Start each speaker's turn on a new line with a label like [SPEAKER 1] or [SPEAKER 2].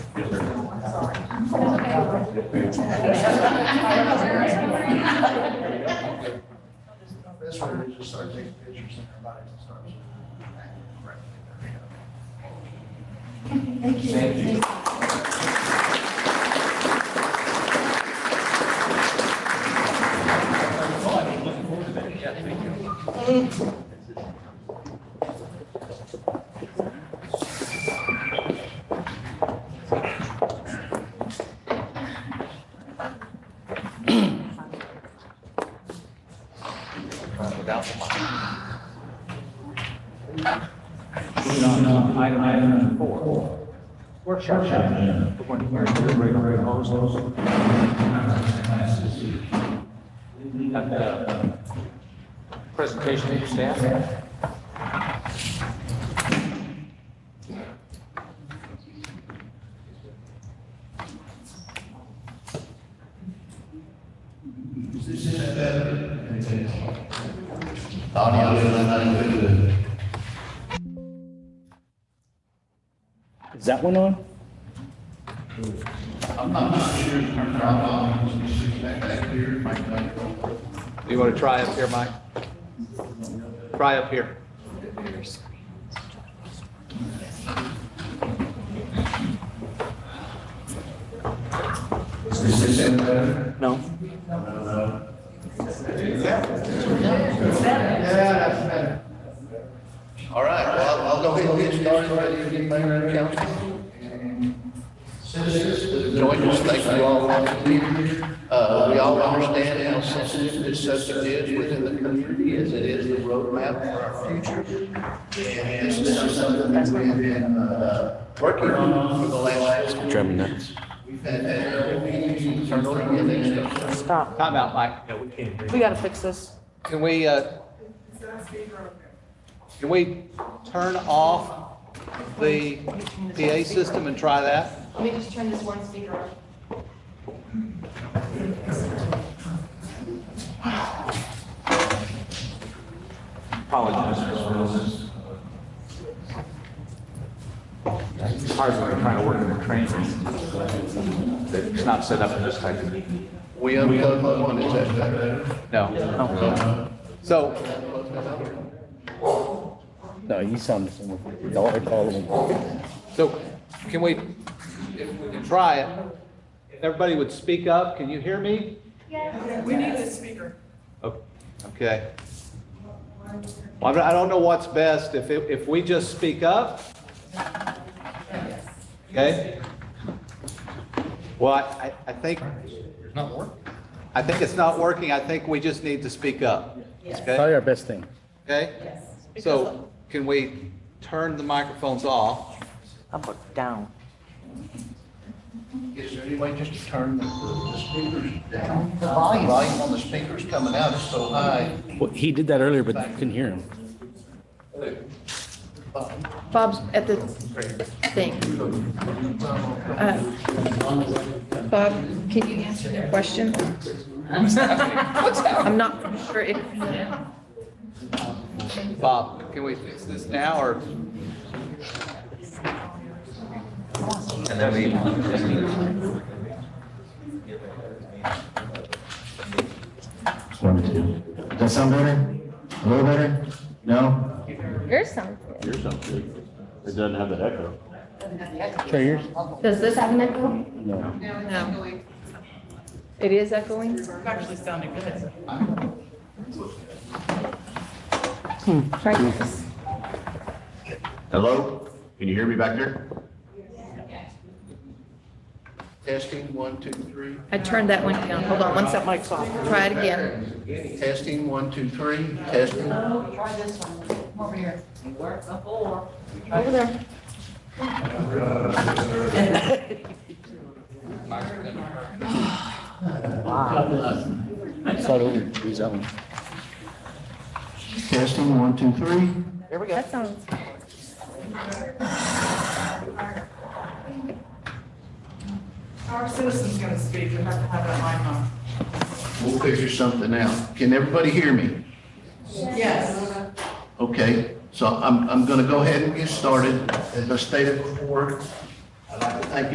[SPEAKER 1] This way, we just start taking pictures and everybody starts.
[SPEAKER 2] Thank you.
[SPEAKER 3] Moving on to item number four. Workshop. For one year, regular proposals. Got the Presentation to your staff.
[SPEAKER 4] Is that one on?
[SPEAKER 1] I'm not sure, I'm not, I'm just back here, Mike,
[SPEAKER 3] You want to try up here, Mike? Try up here. No.
[SPEAKER 1] All right, well, I'll go ahead and get started right here, get mayor and council. And Citizens, join us, thank you all for being here. Uh, we all understand how sensitive this subject is within the community, as it is the roadmap for our future. And this is something that we have been, uh, working on for the last.
[SPEAKER 4] Driving nuts.
[SPEAKER 1] We've had, uh, meetings, turn over the next stuff.
[SPEAKER 5] Stop.
[SPEAKER 3] Time out, Mike.
[SPEAKER 5] We gotta fix this.
[SPEAKER 3] Can we, uh, can we turn off the PA system and try that?
[SPEAKER 6] Let me just turn this one speaker on.
[SPEAKER 3] Apologize. It's hard when you're trying to work in a train. It's not set up for this type of,
[SPEAKER 1] We unplug one, is that better?
[SPEAKER 3] no. So,
[SPEAKER 4] No, you sound the same. Don't recall them.
[SPEAKER 3] so can we, if we can try it, everybody would speak up, can you hear me?
[SPEAKER 7] We need a speaker.
[SPEAKER 3] Oh, Okay. Well, I don't know what's best, if, it- if we just speak up? Okay? Well, I, I think. It's not working? I think it's not working, I think we just need to speak up.
[SPEAKER 4] Probably
[SPEAKER 3] Okay?
[SPEAKER 4] our best thing.
[SPEAKER 3] Okay? So can we turn the microphones off?
[SPEAKER 5] Up or down?
[SPEAKER 1] Is there any way just to turn the, the speakers down? The volume. on the speakers coming out is so high.
[SPEAKER 4] Well, he did that earlier, but you couldn't hear him.
[SPEAKER 6] Bob's at the thing. Uh, Bob, can you answer the question? I'm not sure if,
[SPEAKER 3] Bob, can we fix this now, or?
[SPEAKER 8] One, two. Does that sound better? A little better? No?
[SPEAKER 6] yours sounds good.
[SPEAKER 9] Yours sounds good. It doesn't have that echo.
[SPEAKER 4] Try yours.
[SPEAKER 6] Does this have an echo?
[SPEAKER 4] No.
[SPEAKER 6] No. It is echoing?
[SPEAKER 7] It's actually sounding good.
[SPEAKER 6] Try this.
[SPEAKER 9] Hello? Can you hear me back there?
[SPEAKER 1] Testing, one, two, three.
[SPEAKER 6] I turned that one down. Hold on one
[SPEAKER 5] That
[SPEAKER 6] second.
[SPEAKER 5] mic's off.
[SPEAKER 6] Try it again.
[SPEAKER 1] Testing, one, two, three, testing.
[SPEAKER 7] Try this one, Come over here. Work before.
[SPEAKER 6] Over there.
[SPEAKER 4] Start over. Use that one.
[SPEAKER 8] Testing, one, two, three.
[SPEAKER 5] There we go.
[SPEAKER 6] That sounds.
[SPEAKER 7] Our citizen's gonna speak, you have to have that mic on.
[SPEAKER 1] We'll figure something out. Can everybody hear me?
[SPEAKER 7] Yes.
[SPEAKER 1] Okay, so I'm, I'm gonna go ahead and get started. As I stated before,